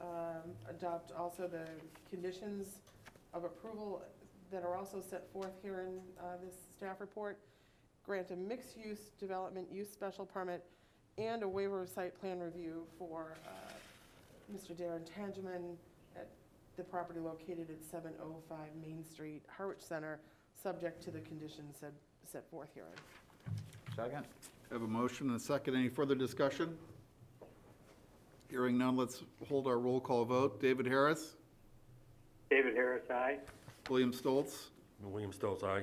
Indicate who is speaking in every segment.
Speaker 1: um, adopt also the conditions of approval that are also set forth here in uh, this staff report. Grant a mixed-use development use special permit and a waiver of site plan review for uh, Mr. Darren Tangeman at the property located at 705 Main Street, Harwich Center, subject to the conditions said, set forth herein.
Speaker 2: Second?
Speaker 3: Have a motion and a second. Any further discussion? Hearing none, let's hold our roll call vote. David Harris,
Speaker 4: David Harris, aye.
Speaker 3: William Stoltz,
Speaker 5: William Stoltz, aye.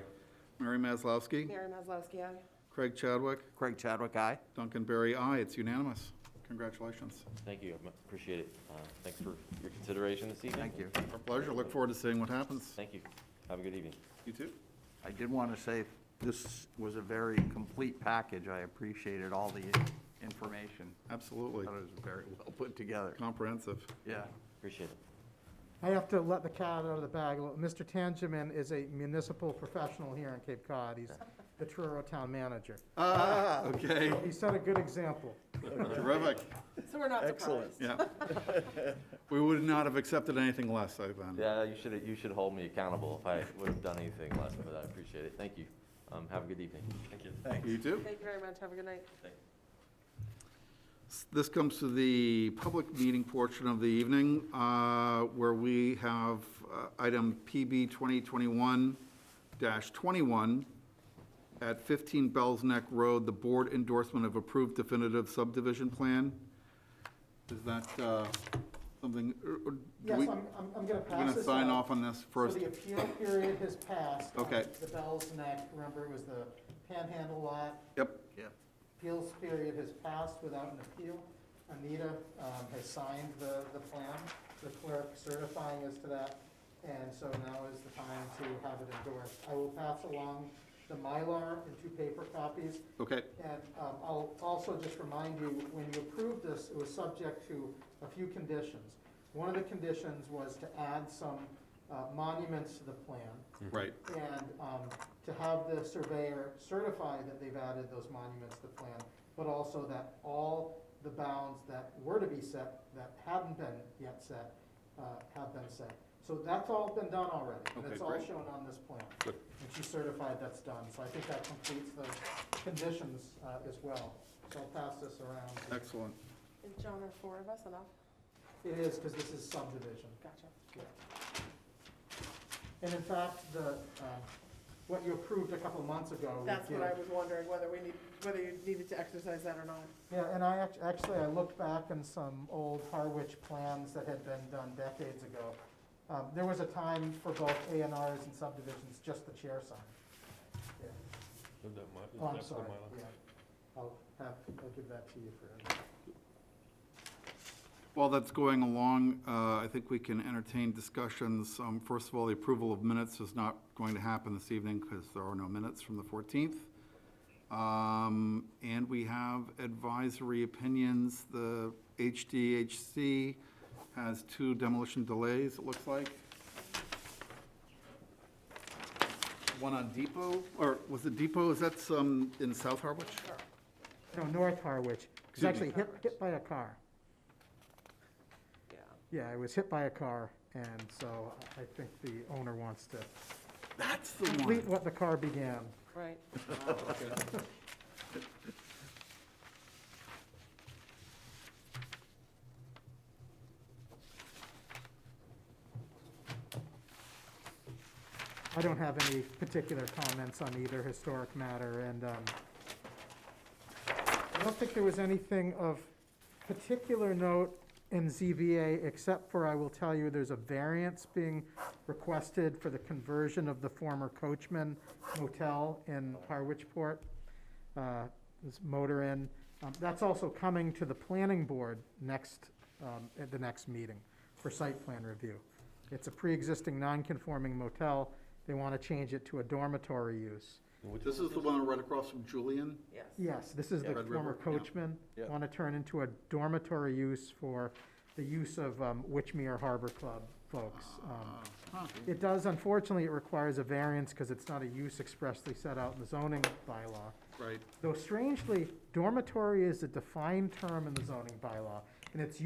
Speaker 3: Mary Maslowski,
Speaker 1: Mary Maslowski, aye.
Speaker 3: Craig Chadwick,
Speaker 2: Craig Chadwick, aye.
Speaker 3: Duncan Berry, aye. It's unanimous. Congratulations.
Speaker 6: Thank you, I appreciate it. Uh, Thanks for your consideration this evening.
Speaker 2: Thank you.
Speaker 3: Our pleasure. Look forward to seeing what happens.
Speaker 6: Thank you. Have a good evening.
Speaker 3: You too.
Speaker 2: I did want to say, this was a very complete package. I appreciated all the information. I
Speaker 3: Absolutely.
Speaker 2: thought it was very well put together.
Speaker 3: Comprehensive.
Speaker 2: Yeah.
Speaker 6: Appreciate it.
Speaker 7: I have to let the cat out of the bag. a little. Mr. Tangeman is a municipal professional here in Cape Cod. He's the Truro Town Manager.
Speaker 3: Ah, okay.
Speaker 7: He set a good example.
Speaker 3: Terrific.
Speaker 1: So we're not surprised.
Speaker 3: Yeah. We would not have accepted anything less, I think.
Speaker 2: Mm-hmm.
Speaker 6: Yeah, you should, you should hold me accountable if I would have done anything less, but I appreciate it. Thank you. Um, Have a good evening. Thank you.
Speaker 3: You too.
Speaker 1: Thank you very much. Have a good night.
Speaker 3: This comes to the public meeting portion of the evening, uh, where we have uh, item PB 2021-21 at 15 Bells Neck Road, the board endorsement of approved definitive subdivision plan. Is that uh, something, or- or do
Speaker 7: Yes,
Speaker 3: we,
Speaker 7: I'm, I'm, I'm
Speaker 3: we're
Speaker 7: gonna pass
Speaker 3: going to
Speaker 7: this
Speaker 3: sign
Speaker 7: out.
Speaker 3: off on this first?
Speaker 7: So the appeal period has passed. on
Speaker 3: Okay.
Speaker 7: The Bell's Neck, remember, it was the Panhandle lot.
Speaker 3: Yep,
Speaker 2: Yeah.
Speaker 7: Appeals period has passed without an appeal. Anita um, has signed the, the plan, the clerk certifying us to that, and so now is the time to have it endorsed. I will pass along the Mylar in two paper copies,
Speaker 3: okay,
Speaker 7: and um, I'll also just remind you, when you approved this, it was subject to a few conditions. One of the conditions was to add some uh, monuments to the plan,
Speaker 3: right.
Speaker 7: and um, to have the surveyor certify that they've added those monuments to the plan, but also that all the bounds that were to be set, that hadn't been yet set, uh, have been set. So that's all been done already, and it's
Speaker 3: Okay,
Speaker 7: all
Speaker 3: great.
Speaker 7: shown on this plan.
Speaker 3: Good.
Speaker 7: And she certified that's done, so I think that completes the conditions uh, as well. So I'll pass this around.
Speaker 3: Excellent.
Speaker 1: Is John or four of us enough?
Speaker 7: It is, because this is subdivision.
Speaker 1: Gotcha.
Speaker 7: And in fact, the, uh, what you approved a couple months ago. Oh, we
Speaker 1: That's what
Speaker 7: did.
Speaker 1: I was wondering, whether we need, whether you needed to exercise that or not.
Speaker 7: Yeah, and I act- actually, I looked back in some old Harwich plans that had been done decades ago. Um, there was a time for both A and Rs and subdivisions, just the chair sign. Yeah. Oh, I'm sorry, yeah. I'll have, I'll give that to you for,
Speaker 3: While that's going along, uh, I think we can entertain discussions. Um, First of all, the approval of minutes is not going to happen this evening because there are no minutes from the 14th. Um, And we have advisory opinions. The HDHC has two demolition delays, it looks like. One on Depot, or was it Depot? Is that some in South Harwich?
Speaker 7: no, North Harwich. It was
Speaker 3: Excuse
Speaker 7: actually
Speaker 3: me.
Speaker 7: hit, hit by a car.
Speaker 1: Yeah.
Speaker 7: Yeah, it was hit by a car, and so I- I think the owner wants to
Speaker 3: That's the one.
Speaker 7: complete what the car began.
Speaker 1: Right.
Speaker 7: I don't have any particular comments on either historic matter, and um, I don't think there was anything of particular note in ZBA, except for I will tell you, there's a variance being requested for the conversion of the former Coachman Motel in Harwichport, uh, this Motor Inn. Um, That's also coming to the planning board next, um, at the next meeting for site plan review. It's a pre-existing non-conforming motel. They want to change it to a dormitory use.
Speaker 3: This is the one right across from Julian?
Speaker 1: Yes.
Speaker 7: Yes, this is the
Speaker 3: Yeah. Red
Speaker 7: former
Speaker 3: River, yeah.
Speaker 7: coachman.
Speaker 2: Yeah.
Speaker 7: Want to turn into a dormitory use for the use of um, Witchmere Harbor Club folks. Um,
Speaker 3: Huh.
Speaker 7: It does, unfortunately, it requires a variance because it's not a use expressly set out in the zoning bylaw.
Speaker 3: Right.
Speaker 7: Though strangely, dormitory is a defined term in the zoning bylaw, and it's